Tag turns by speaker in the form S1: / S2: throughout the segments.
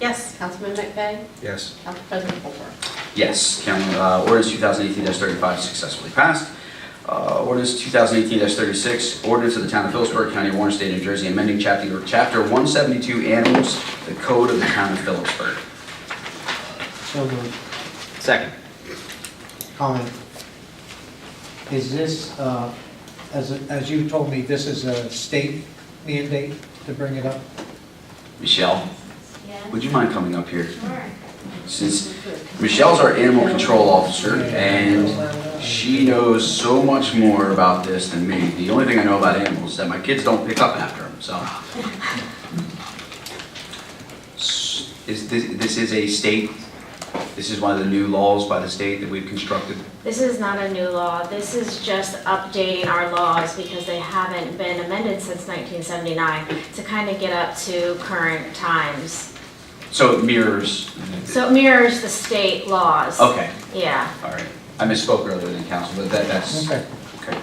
S1: Yes.
S2: Councilman McVeigh?
S3: Yes.
S2: Council President Holmer?
S4: Yes, Count- uh, ordinance 2018-35 successfully passed. Uh, Ordinance 2018-36, ordinance of the Town of Phillipsburg, County of Orange, State of New Jersey, amending Chapter Chapter 172 Animals, the Code of the Town of Phillipsburg.
S5: So moved.
S6: Second.
S5: Comment. Is this, uh, as, as you told me, this is a state mandate to bring it up?
S4: Michelle,
S1: Yeah.
S4: would you mind coming up here?
S1: Sure.
S4: Since Michelle's our animal control officer, and she knows so much more about this than me. The only thing I know about animals is that my kids don't pick up after them, so. S- Is, this, this is a state, this is one of the new laws by the state that we've constructed?
S7: This is not a new law. This is just updating our laws because they haven't been amended since 1979 to kind of get up to current times.
S4: So it mirrors,
S7: So it mirrors the state laws.
S4: okay,
S7: Yeah.
S4: all right. I misspoke earlier than council, but that, that's,
S5: Okay,
S4: okay.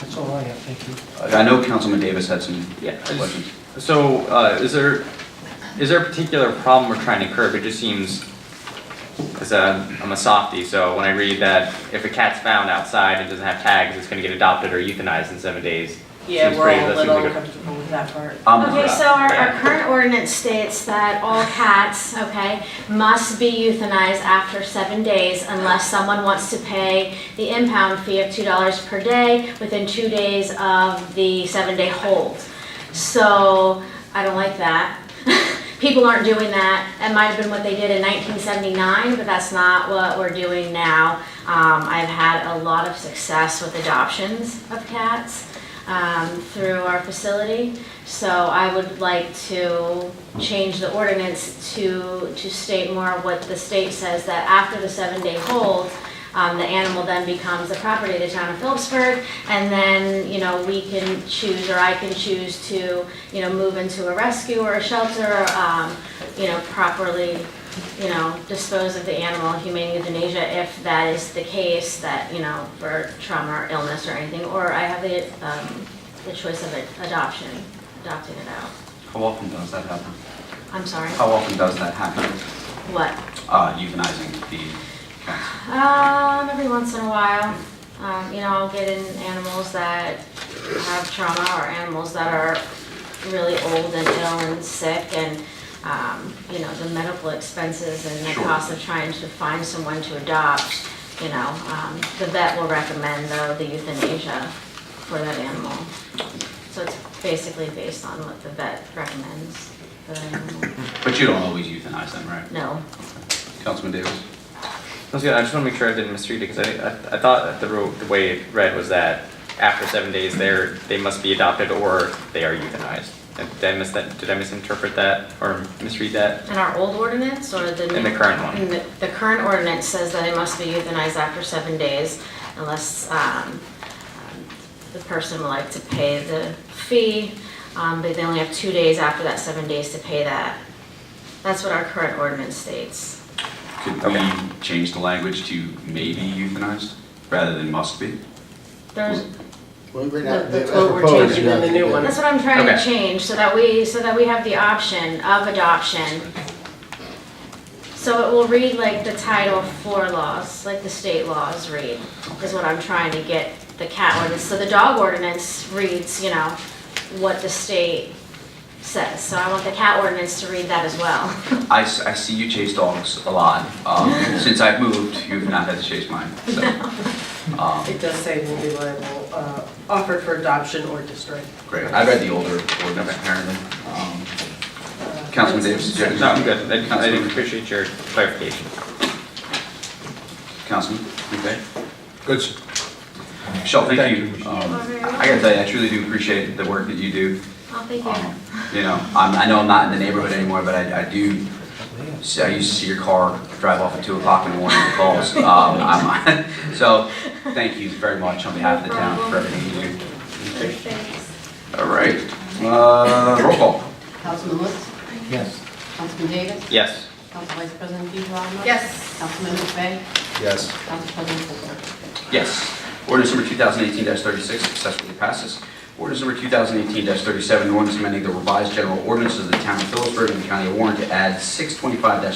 S5: that's all I have, thank you.
S4: I know Councilman Davis had some
S6: Yeah, I just-
S4: questions.
S6: So, uh, is there, is there a particular problem we're trying to curb? It just seems, because I'm a softie, so when I read that if a cat's found outside and doesn't have tags, it's gonna get adopted or euthanized in seven days.
S8: Yeah,
S6: Seems
S8: we're
S6: pretty-
S8: all a
S6: that seems
S8: little
S6: like a-
S8: uncomfortable with that part.
S4: I'm not-
S7: Okay, so our, our current ordinance states that all cats, okay, must be euthanized after seven days unless someone wants to pay the impound fee of two dollars per day within two days of the seven-day hold. So, I don't like that. People aren't doing that. That might have been what they did in nineteen seventy-nine, but that's not what we're doing now. Um, I've had a lot of success with adoptions of cats, um, through our facility. So I would like to change the ordinance to, to state more what the state says, that after the seven-day hold, um, the animal then becomes the property of the town of Phillipsburg, and then, you know, we can choose, or I can choose to, you know, move into a rescue or a shelter, um, you know, properly, you know, dispose of the animal, humane euthanasia, if that is the case, that, you know, for trauma or illness or anything, or I have the, um, the choice of it- adoption, adopting it out.
S4: How often does that happen?
S7: I'm sorry,
S4: How often does that happen?
S7: what?
S4: Uh, euthanizing the cats?
S7: Um, every once in a while, um, you know, I'll get in animals that have trauma or animals that are really old and ill and sick and, um, you know, the medical expenses and the
S4: Sure.
S7: cost of trying to find someone to adopt, you know, um, the vet will recommend though the euthanasia for that animal. So it's basically based on what the vet recommends for that animal.
S4: But you don't always euthanize them, right?
S7: No,
S4: Councilman Davis?
S6: That's good. I just want to make sure I didn't misread it, because I, I- I thought that the, ro- the way it read was that after seven days, they're, they must be adopted or they are euthanized. And Did I miss that, did I misinterpret that or misread that?
S7: In our old ordinance or the new?
S6: In the current one.
S7: In The the current ordinance says that it must be euthanized after seven days unless um, the person would like to pay the fee, um, but they only have two days after that seven days to pay that. That's what our current ordinance states.
S4: Could we change the language to maybe euthanized rather than must be?
S7: There's,
S3: Well, right
S2: now,
S3: now, as
S2: That's what we're
S3: proposed,
S2: changing
S3: you
S2: in the
S3: have to
S2: new
S3: do-
S2: one.
S7: that's what I'm trying to
S6: Okay.
S7: change, so that we, so that we have the option of adoption. So it will read like the Title IV laws, like the state laws read, is what I'm trying to get the cat ordinance. So the dog ordinance reads, you know, what the state says. So I want the cat ordinance to read that as well.
S4: I, s- I see you chase dogs a lot. Um, Since I've moved, you've not had to chase mine, so. Um,
S8: It does say will be liable, uh, offered for adoption or destroyed.
S4: Great, I read the older ordinance apparently. Um,
S8: Uh,
S4: Councilman Davis, did you have
S6: No, I'm
S4: anything?
S6: good. I, I appreciate your clarification.
S4: Councilman, okay.
S3: Good, sir.
S4: Michelle, thank
S3: Thank
S4: you.
S3: you, Michelle.
S4: Um, I gotta tell you, I truly do appreciate the work that you do.
S7: Oh, thank
S4: Um,
S7: you.
S4: You know, I'm, I know I'm not in the neighborhood anymore, but I, I do, see- I used to see your car drive off at two o'clock in the morning with calls. Um, I'm, so, thank you very much on behalf of the town for everything you do.
S7: Thanks.
S4: All right, uh, roll call.
S2: Councilman Lutz?
S5: Yes.
S2: Councilman Davis?
S6: Yes.
S2: Council Vice President Dejrolo?
S8: Yes.
S2: Councilman McVeigh?
S3: Yes.
S2: Council President Holmer?
S4: Yes. Ordinance number 2018-36 successfully passes. Ordinance number 2018-37, an ordinance amending the revised general ordinances of the town of Phillipsburg and the county of Warren to add 625-3